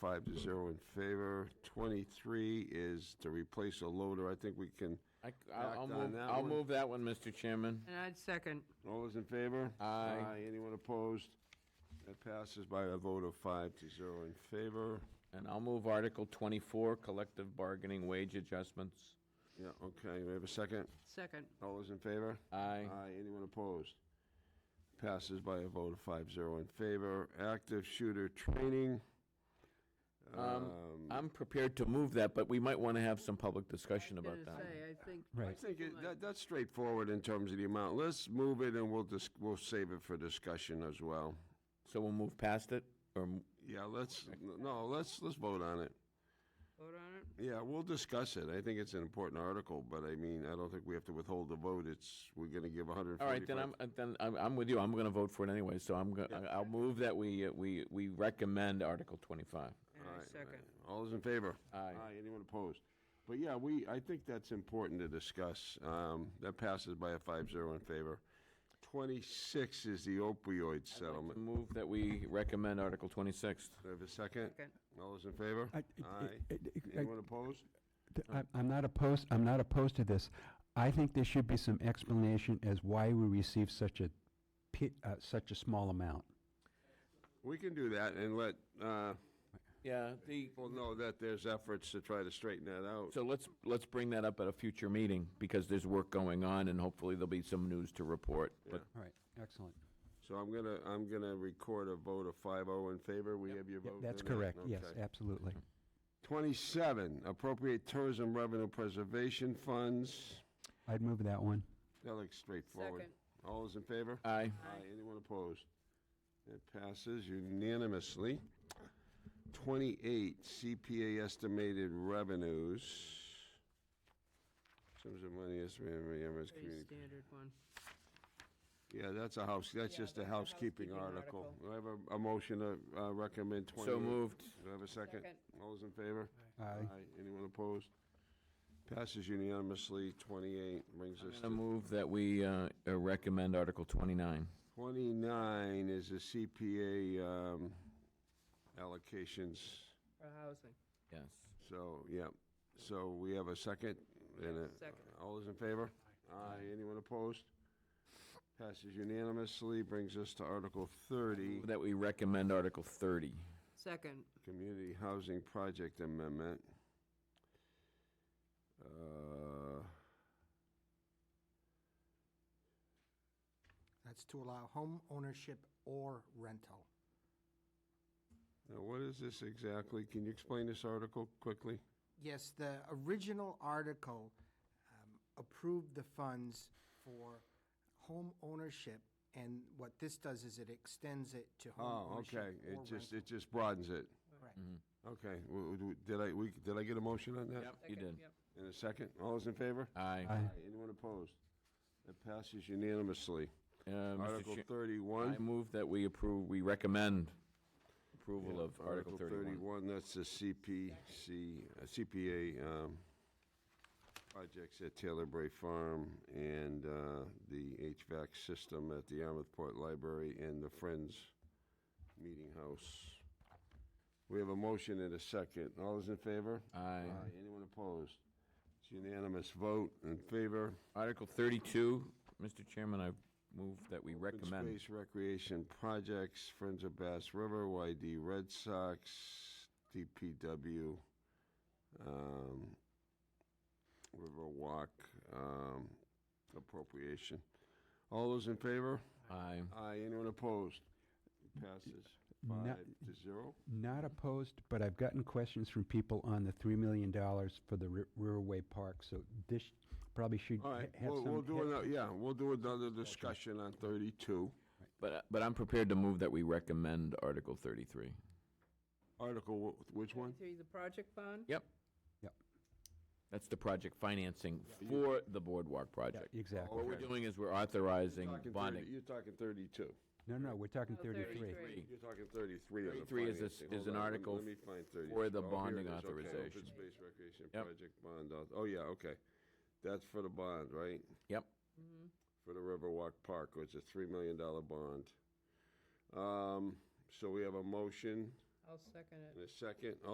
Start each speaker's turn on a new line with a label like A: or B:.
A: Five to zero in favor. Twenty-three is to replace a loader. I think we can,
B: I, will
A: Act on
B: move,
A: that
B: I'll
A: one.
B: move that one, Mr. Chairman.
C: And I'd second.
A: all those in favor?
B: Aye.
A: Anyone opposed? That passes by a vote of five to zero in favor.
B: And I'll move Article 24, collective bargaining wage adjustments.
A: Yeah, okay, we have a second.
C: Second.
A: All those in favor?
B: Aye.
A: Aye, anyone opposed? Passes by a vote of five zero in favor. Active shooter training.
B: Um, I'm prepared to move that, but we might want to have some public discussion
C: I was
B: about
C: gonna
B: that.
C: say, I think.
A: I think it- that, that's straightforward in terms of the amount. Let's move it and we'll dis, we'll save it for discussion as well.
B: So we'll move past it, or, m-
A: Yeah, let's, no, let's, let's vote on it.
C: Vote on it?
A: Yeah, we'll discuss it. I think it's an important article, but I mean, I don't think we have to withhold the vote. It's, we're gonna give hundred and
B: all right,
A: forty-five.
B: then I'm, uh, then I'm, I'm with you, I'm going to vote for it anyway, so I'm, go- I- I'll move that we, uh, we, we recommend Article 25.
C: And I second.
A: All those in favor?
B: Aye.
A: anyone opposed? But yeah, we, I think that's important to discuss. Um, that passes by a five zero in favor. Twenty-six is the opioid settlement.
B: Move that we recommend Article 26.
A: Do I have a second?
C: Second.
A: All those in favor?
D: I- I- I- I- I-
A: Anyone opposed?
D: th- I'm- I'm not opposed, I'm not opposed to this. I think there should be some explanation as why we receive such a, pi- uh, such a small amount.
A: We can do that and let, uh,
B: Yeah, the,
A: people know that there's efforts to try to straighten that out.
B: so let's, let's bring that up at a future meeting, because there's work going on, and hopefully there'll be some news to report. But
D: All right, excellent.
A: So I'm gonna, I'm gonna record a vote of five oh in favor. We have your
D: Yeah,
A: vote?
D: That's
A: on that?
D: correct, yes,
A: Okay.
D: absolutely.
A: 27, appropriate tourism revenue preservation funds.
D: I'd move that one.
A: That looks straightforward.
C: Second.
A: All those in favor?
B: Aye.
A: Anyone opposed? It passes unanimously. 28, CPA estimated revenues. Sums of money estimated, by Amherst
C: Pretty
A: Community.
C: standard one.
A: Yeah, that's a house, that's just a housekeeping article. Do I have a- a motion to uh, recommend 28?
B: So moved.
A: Do I have a second?
C: Second.
A: All those in favor?
D: Aye.
A: Anyone opposed? Passes unanimously, 28, brings us
B: I
A: to
B: move that we uh, uh, recommend Article 29.
A: 29 is the CPA um, allocations,
C: For housing.
B: Yes.
A: so, yeah. So we have a second and a...
C: Second.
A: All those in favor? Aye. Anyone opposed? Passes unanimously, brings us to Article 30,
B: Move That we recommend Article 30.
C: Second.
A: Community Housing Project Amendment. Uh,
E: That's to allow home ownership or rental.
A: Now, what is this exactly? Can you explain this article quickly?
E: Yes, the original article um, approved the funds for home ownership, and what this does is it extends it to home
A: Oh,
E: ownership
A: okay, it
E: or
A: just,
E: rental.
A: it just broadens it.
E: Correct.
B: Mm-hmm.
A: Okay, W- w- did I, we, did I get a motion on that?
B: You
C: Second,
B: did.
C: yep.
A: In a second, all those in favor?
B: Aye.
D: Aye.
A: Anyone opposed? It passes unanimously.
B: Uh, Mr.
A: Article
B: Chair- I
A: thirty-one.
B: move that we approve, we recommend approval of Article 31.
A: Thirty-one, that's the CPC, uh, CPA, um, projects at Taylor Bray Farm and, uh, the HVAC system at the Yarmouth Port Library and the Friends Meeting House. We have a motion and a second. All those in favor?
B: Aye.
A: Aye. Anyone opposed? It's unanimous vote in favor.
B: Article 32, Mr. Chairman, I move that we
A: Open
B: recommend.
A: Space Recreation Projects, Friends of Bass River, YD Red Sox, DPW, um, Riverwalk, um, appropriation. All those in favor?
B: Aye.
A: Aye. Anyone opposed? Passes
D: No-
A: five to zero.
D: Not opposed, but I've gotten questions from people on the $3 million for the Ri- Riverway Park, so this probably should
A: All
D: ha-
A: right,
D: have
A: we'll,
D: some.
A: we'll do
D: have-
A: another, yeah, we'll do another discussion on thirty-two.
B: But, but I'm prepared to move that we recommend Article 33.
A: Article, wh- which one?
C: Through the project bond?
B: Yep.
D: Yep.
B: That's the project financing for the boardwalk
D: Yeah,
B: project.
D: Exactly.
B: What we're
A: Okay.
B: doing is we're authorizing
A: Talking 30
B: bonding.
A: You're talking thirty-two.
D: No, no, we're talking
C: Oh,
D: 33.
C: 33.
A: You're talking 33 as a
B: 33 is a s-
A: financing.
B: is
A: Hold
B: an
A: on, let me-
B: article
A: let me find 30.
B: for the
A: Oh, here
B: bonding
A: it is. Okay,
B: authorization.
A: Open space recreation
B: Yep.
A: project bond, auth- oh, yeah, okay. That's for the bond, right?
B: Yep.
A: For the Riverwalk Park, which is a $3 million bond. Um, So we have a motion.
C: I'll I'll second it.
A: And a second,